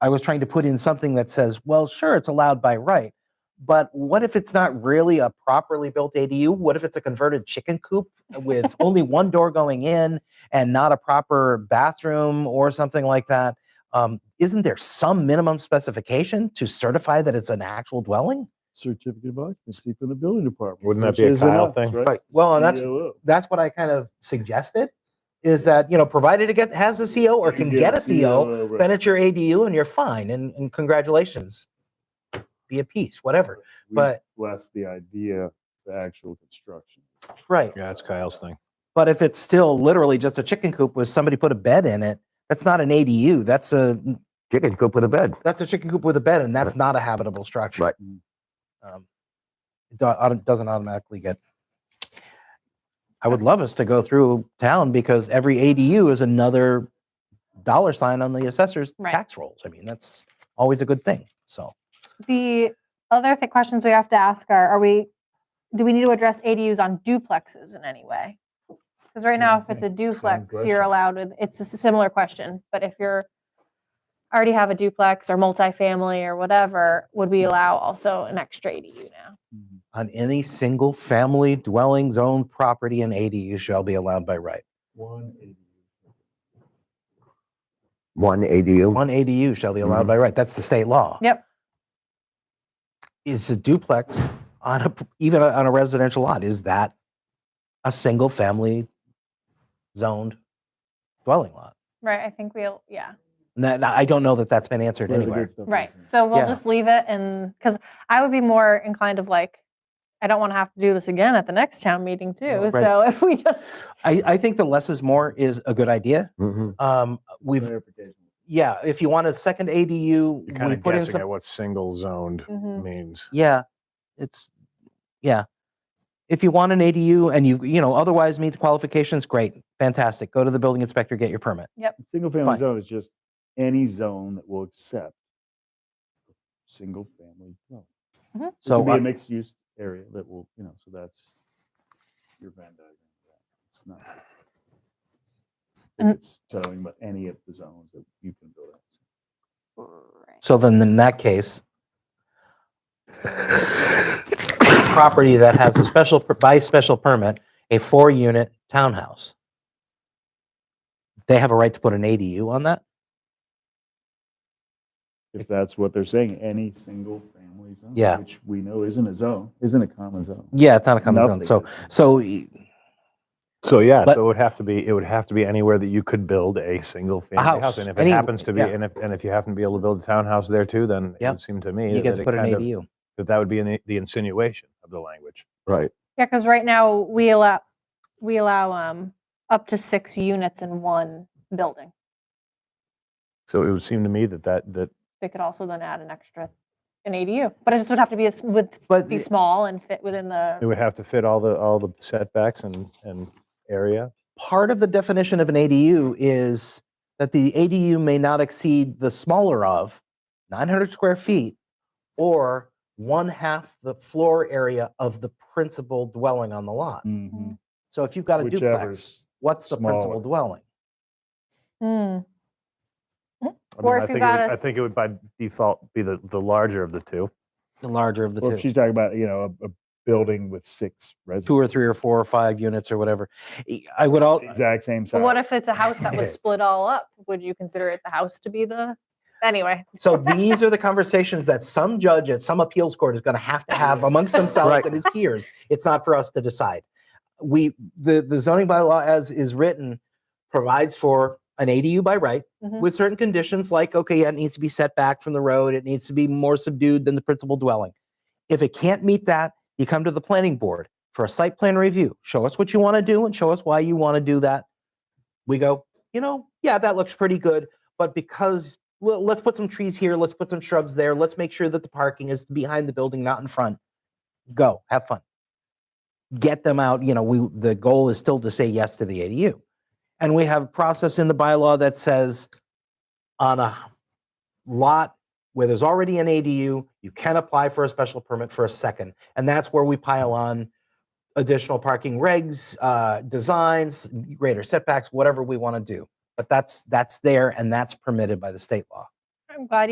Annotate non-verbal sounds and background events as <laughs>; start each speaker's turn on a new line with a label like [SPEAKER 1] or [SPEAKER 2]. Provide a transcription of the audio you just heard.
[SPEAKER 1] I was trying to put in something that says, well, sure, it's allowed by right, but what if it's not really a properly built ADU? What if it's a converted chicken coop with only one door going in and not a proper bathroom or something like that? Um, isn't there some minimum specification to certify that it's an actual dwelling?
[SPEAKER 2] certificate of occupancy from the building department.
[SPEAKER 3] Wouldn't that
[SPEAKER 2] which
[SPEAKER 3] be a
[SPEAKER 2] is an
[SPEAKER 3] Kyle
[SPEAKER 2] us,
[SPEAKER 3] thing?
[SPEAKER 2] Right. E
[SPEAKER 1] Well, and that's
[SPEAKER 2] COO.
[SPEAKER 1] that's what I kind of suggested is that you know, provided it gets has a CO or can get a E
[SPEAKER 2] E
[SPEAKER 1] CO,
[SPEAKER 2] right.
[SPEAKER 1] then it's your ADU and you're fine. And, and congratulations, be at peace, whatever.
[SPEAKER 2] We
[SPEAKER 1] But
[SPEAKER 2] bless the idea, the actual construction.
[SPEAKER 1] right,
[SPEAKER 3] Yeah, that's Kyle's thing.
[SPEAKER 1] But if it's still literally just a chicken coop with somebody put a bed in it, that's not an ADU. That's a
[SPEAKER 4] Chicken coop with a bed.
[SPEAKER 1] that's a chicken coop with a bed, and that's not a habitable structure.
[SPEAKER 4] Right.
[SPEAKER 1] Um, it do- auto- doesn't automatically get. I would love us to go through town because every ADU is another dollar sign on the assessor's
[SPEAKER 5] Right.
[SPEAKER 1] tax rolls. I mean, that's always a good thing. So
[SPEAKER 5] The other th- questions we have to ask are, are we, do we need to address ADUs on duplexes in any way? Because right now, if it's a duplex, you're
[SPEAKER 2] question.
[SPEAKER 5] allowed with, it's a similar question, but if you're already have a duplex or multifamily or whatever, would we allow also an extra ADU now?
[SPEAKER 1] on any single family dwelling zone property, an ADU shall be allowed by right.
[SPEAKER 2] One eighty.
[SPEAKER 4] One ADU.
[SPEAKER 1] One ADU shall be allowed by right. That's the state law.
[SPEAKER 5] Yep.
[SPEAKER 1] Is a duplex on a, even on a residential lot, is that a single family zoned dwelling lot?
[SPEAKER 5] Right, I think we'll, yeah,
[SPEAKER 1] And that, I don't know that that's been answered
[SPEAKER 2] Where the good
[SPEAKER 1] anywhere.
[SPEAKER 2] stuff is
[SPEAKER 5] right.
[SPEAKER 2] in.
[SPEAKER 5] So we'll
[SPEAKER 1] Yeah.
[SPEAKER 5] just leave it and, because I would be more inclined of like, I don't want to have to do this again at the next town meeting too.
[SPEAKER 1] Right.
[SPEAKER 5] So <laughs> if we just,
[SPEAKER 1] I, I think the less is more is a good idea.
[SPEAKER 3] Mm-hmm.
[SPEAKER 4] Mhm.
[SPEAKER 1] Um, we've,
[SPEAKER 2] Clarification.
[SPEAKER 1] yeah, if you want a second
[SPEAKER 3] You're
[SPEAKER 1] ADU,
[SPEAKER 3] kind
[SPEAKER 1] we
[SPEAKER 3] of
[SPEAKER 1] put in
[SPEAKER 3] guessing
[SPEAKER 1] some, Mm-hmm.
[SPEAKER 3] at what single zoned
[SPEAKER 5] Mhm.
[SPEAKER 3] means.
[SPEAKER 1] yeah, it's, yeah. If you want an ADU and you, you know, otherwise meet the qualifications, great, fantastic. Go to the building inspector, get your permit.
[SPEAKER 2] Single
[SPEAKER 1] Fine.
[SPEAKER 2] family zone is just any zone that will accept single family. dwelling. It
[SPEAKER 1] So uh,
[SPEAKER 2] could be
[SPEAKER 1] I-
[SPEAKER 2] a mixed use area that will, you know, so that's your Venn diagram. yeah. It's not.
[SPEAKER 5] And-
[SPEAKER 2] It's telling about any of the zones that you can build. out.
[SPEAKER 1] So then in that
[SPEAKER 3] <laughs>
[SPEAKER 1] case, property that has a special, per- by special permit, a four-unit townhouse. They have a right to put an ADU on that?
[SPEAKER 2] If that's what they're saying, any single family zone.
[SPEAKER 1] Yeah.
[SPEAKER 2] Which we know isn't a zone, isn't a common zone.
[SPEAKER 1] Yeah, it's not a common zone.
[SPEAKER 2] Nothing
[SPEAKER 1] So,
[SPEAKER 2] is.
[SPEAKER 1] so y-
[SPEAKER 3] So yeah,
[SPEAKER 1] But-
[SPEAKER 3] so it would have to be it would have to be anywhere that you could build a single family house,
[SPEAKER 1] house,
[SPEAKER 3] and if
[SPEAKER 1] any-
[SPEAKER 3] it happens to be
[SPEAKER 1] yeah.
[SPEAKER 3] and if and if you happen to be able to build a townhouse there too, then
[SPEAKER 1] Yeah.
[SPEAKER 3] it would seem to me
[SPEAKER 1] you
[SPEAKER 3] that
[SPEAKER 1] get to
[SPEAKER 3] it
[SPEAKER 1] put an
[SPEAKER 3] kind of,
[SPEAKER 1] ADU.
[SPEAKER 3] that that would be in the, the insinuation of the language.
[SPEAKER 4] Right.
[SPEAKER 5] Yeah, because right now we allow, we allow um up to six units in one building.
[SPEAKER 3] So it would seem to me that that that
[SPEAKER 5] They could also then add an extra, an ADU, but it just would have to be, a s- would
[SPEAKER 1] But
[SPEAKER 5] be
[SPEAKER 1] the-
[SPEAKER 5] small and fit within
[SPEAKER 3] it
[SPEAKER 5] the,
[SPEAKER 3] would have to fit all the all the setbacks and and area.
[SPEAKER 1] part of the definition of an ADU is that the ADU may not exceed the smaller of 900 square feet or one half the floor area of the principal dwelling on the lot.
[SPEAKER 2] Mhm.
[SPEAKER 1] So if you've Mm-hmm. got a duplex,
[SPEAKER 2] Whichever's
[SPEAKER 1] what's the principal
[SPEAKER 2] smaller.
[SPEAKER 1] dwelling?
[SPEAKER 5] Hmm,
[SPEAKER 3] I
[SPEAKER 5] Or
[SPEAKER 3] I
[SPEAKER 5] if you
[SPEAKER 3] think
[SPEAKER 5] got
[SPEAKER 3] it
[SPEAKER 5] a
[SPEAKER 3] would, I
[SPEAKER 5] s-
[SPEAKER 3] think it would by default be the the larger of the two.
[SPEAKER 1] The larger of the
[SPEAKER 2] Well, if
[SPEAKER 1] two,
[SPEAKER 2] she's talking about, you know, a, a building with six residents.
[SPEAKER 1] two or three or four or five units or whatever. E- I would all,
[SPEAKER 2] Exact same
[SPEAKER 5] but
[SPEAKER 2] size.
[SPEAKER 5] what if it's a house that <laughs> was split all up? Would you consider it the house to be the, anyway,
[SPEAKER 1] so these are the conversations that some judge at some appeals court is going to have to have amongst themselves
[SPEAKER 4] Right.
[SPEAKER 1] and his peers. It's not for us to decide. We, the, the zoning bylaw as is written provides for an ADU by right
[SPEAKER 5] Mhm.
[SPEAKER 1] with certain conditions like, okay, yeah, it needs to be set back from the road. It needs to be more subdued than the principal dwelling. If it can't meet that, you come to the planning board for a site plan review. Show us what you want to do and show us why you want to do that. We go, you know, yeah, that looks pretty good, but because well, let's put some trees here, let's put some shrubs there, let's make sure that the parking is behind the building, not in front. Go, have fun. Get them out. You know, we the goal is still to say yes to the ADU. And we have a process in the bylaw that says on a lot where there's already an ADU, you can apply for a special permit for a second. And that's where we pile on additional parking regs, uh, designs, greater setbacks, whatever we want to do. But that's, that's there and that's permitted by the state law.
[SPEAKER 5] I'm glad